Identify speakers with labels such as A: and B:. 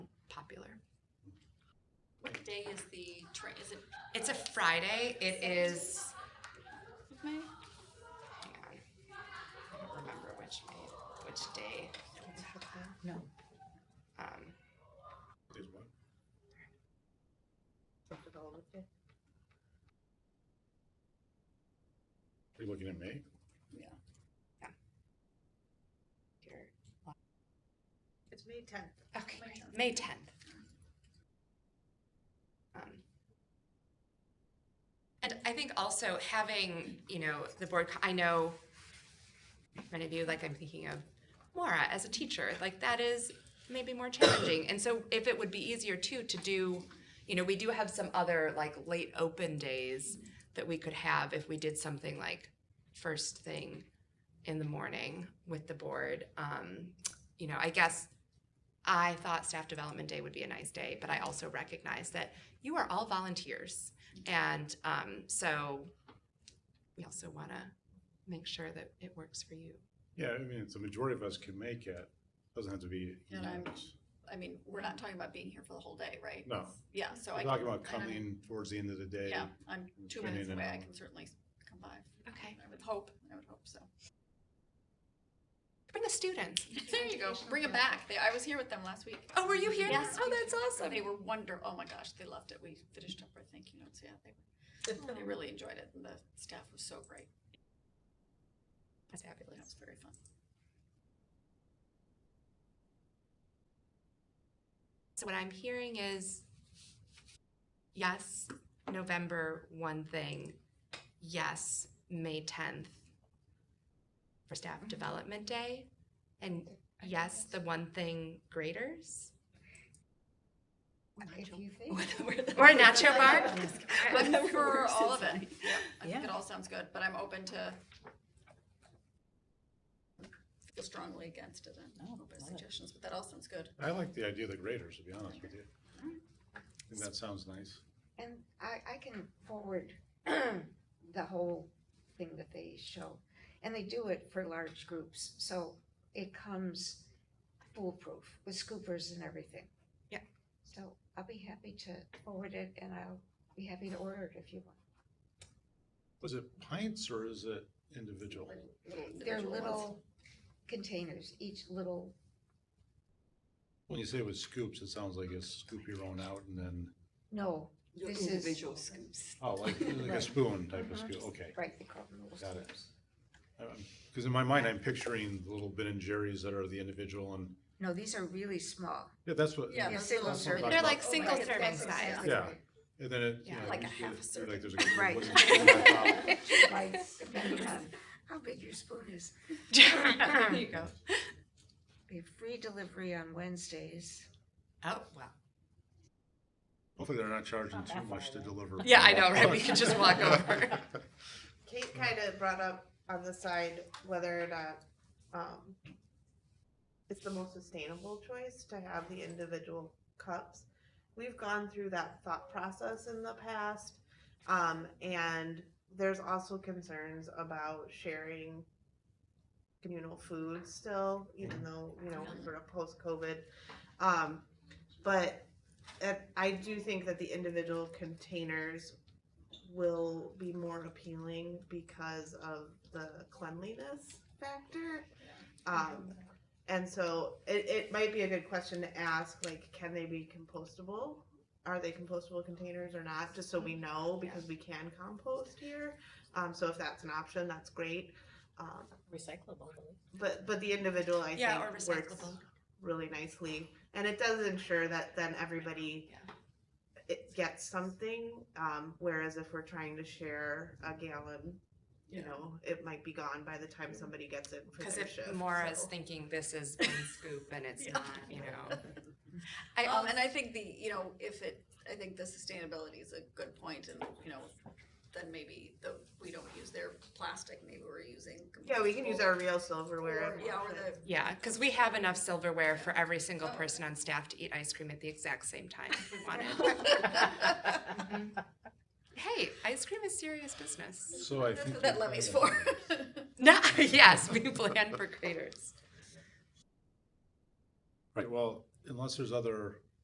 A: day is the train? Is it
B: It's a Friday. It is.
A: May?
B: Hang on. I don't remember which May, which day.
C: No.
B: Um,
D: Is what? Are you looking at me?
B: here.
C: It's May tenth.
B: Okay, great. May tenth. Um, And I think also having, you know, the board, co- I know many of you, like I'm thinking of Maura as a teacher, like that is maybe more challenging. And so if it would be easier too to do, you know, we do have some other like late open days that we could have if we did something like first thing in the morning with the board. Um, you know, I guess I thought staff development day would be a nice day, but I also recognize that you are all volunteers. And um, so we also want to make sure that it works for you.
D: Yeah, I mean, it's the majority of us can make it. Doesn't have to be
A: And I'm-
D: unanimous.
A: I mean, we're not talking about being here for the whole day, right?
D: No.
A: Yeah, so I.
D: We're talking
A: can-
D: about
A: I don't-
D: coming towards the end of the day.
A: Yeah, I'm
D: and
A: two minutes
D: spending an
A: away. I
D: hour.
A: can certainly come by.
B: Okay.
A: I would hope, I would hope so.
B: Bring a student.
A: There you go. Bring it back. They, I was here with them last week.
B: Oh, were you here?
A: Yes.
B: Oh, that's awesome.
A: They were wonder, oh my gosh, they loved it. We finished up our thank you notes. Yeah, they, they really enjoyed it and the staff was so great.
B: That's
A: That
B: fabulous.
A: was very fun.
B: So what I'm hearing is yes, November one thing, yes, May 10th for staff development day, and yes, the one thing graders
C: If you think.
B: or a nacho bar.
A: I'm for all of it. Yeah, I think
C: Yeah.
A: it all sounds good, but I'm open to feel strongly against it
E: Oh,
A: and
C: No,
A: open to
C: love it.
A: suggestions, but that all sounds good.
D: I like the idea of the graders, to be honest with you. I think that sounds nice.
E: And I, I can forward the whole thing that they show. And they do it for large groups, so it comes foolproof with scoopers and everything.
B: Yeah.
E: So I'll be happy to forward it and I'll be happy to order it if you want.
D: Was it pints or is it individual?
E: They're
A: individual ones.
E: little containers, each little,
D: When you say it was scoops, it sounds like you scoop your own out and then,
E: no, this is,
C: scoops.
D: oh, like, like a
E: Right.
D: spoon type of
E: Mhm.
A: Uh-huh.
D: scoop, okay.
E: right, the crop noodles.
D: Got it. Because in my mind, I'm picturing the little Ben and Jerry's that are the individual and,
E: No, these are really small.
D: yeah, that's what.
A: Yeah,
E: Yeah,
A: those
E: single
A: little-
E: serving.
B: They're like
A: Oh,
B: single
A: right.
B: serving
A: That's-
B: size.
D: Yeah, and then it, you
B: Yeah,
D: know.
A: like a
D: you-
A: half a
D: you're like there's a
E: Right.
D: Right.
E: Bites, depending on How big your spoon is.
A: There you go.
E: We have free delivery on Wednesdays.
B: Oh, wow.
D: Hopefully they're not charging too much to deliver.
B: Yeah, I know, right? We could just walk over.
F: Kate kind of brought up on the side whether or not um, it's the most sustainable choice to have the individual cups. We've gone through that thought process in the past, um, and there's also concerns about sharing communal food still, even though you know we're sort of post COVID. Um, but uh, I do think that the individual containers will be more appealing because of the cleanliness factor. Um, and so it, it might be a good question to ask, like, can they be compostable? Are they compostable containers or not? Just so we know, because we can compost here. Um, so if that's an option, that's great. Um,
C: Recyclable.
F: but, but the individual, I
B: Yeah, or
F: think, works
B: recyclable.
F: really nicely. And it does ensure that then everybody
B: Yeah.
F: it gets something. Um, whereas if we're trying to share a gallon, you know, it might be gone by the time somebody gets it for
B: Because
F: their
B: if
F: shift.
B: Maura's
F: so.
B: thinking this is one scoop and it's
A: Yeah.
B: not, you know. I
A: Um,
B: also,
A: and I think the, you know, if it, I think the sustainability is a good point and, you know, then maybe the, we don't use their plastic, maybe we're using.
F: yeah, we can use
A: compostable
F: our real silverware.
A: Or,
F: if
A: yeah, or
F: wanted.
A: the,
B: yeah, because we have enough silverware for every single
A: Oh.
B: person on staff to eat ice cream at the exact same time if we wanted.
A: Mm-hmm.
B: Hey, ice cream is serious business.
D: So I
A: that's
D: think.
A: what that levy's for.
B: No, yes, we plan for graders.
D: Right, well, unless there's other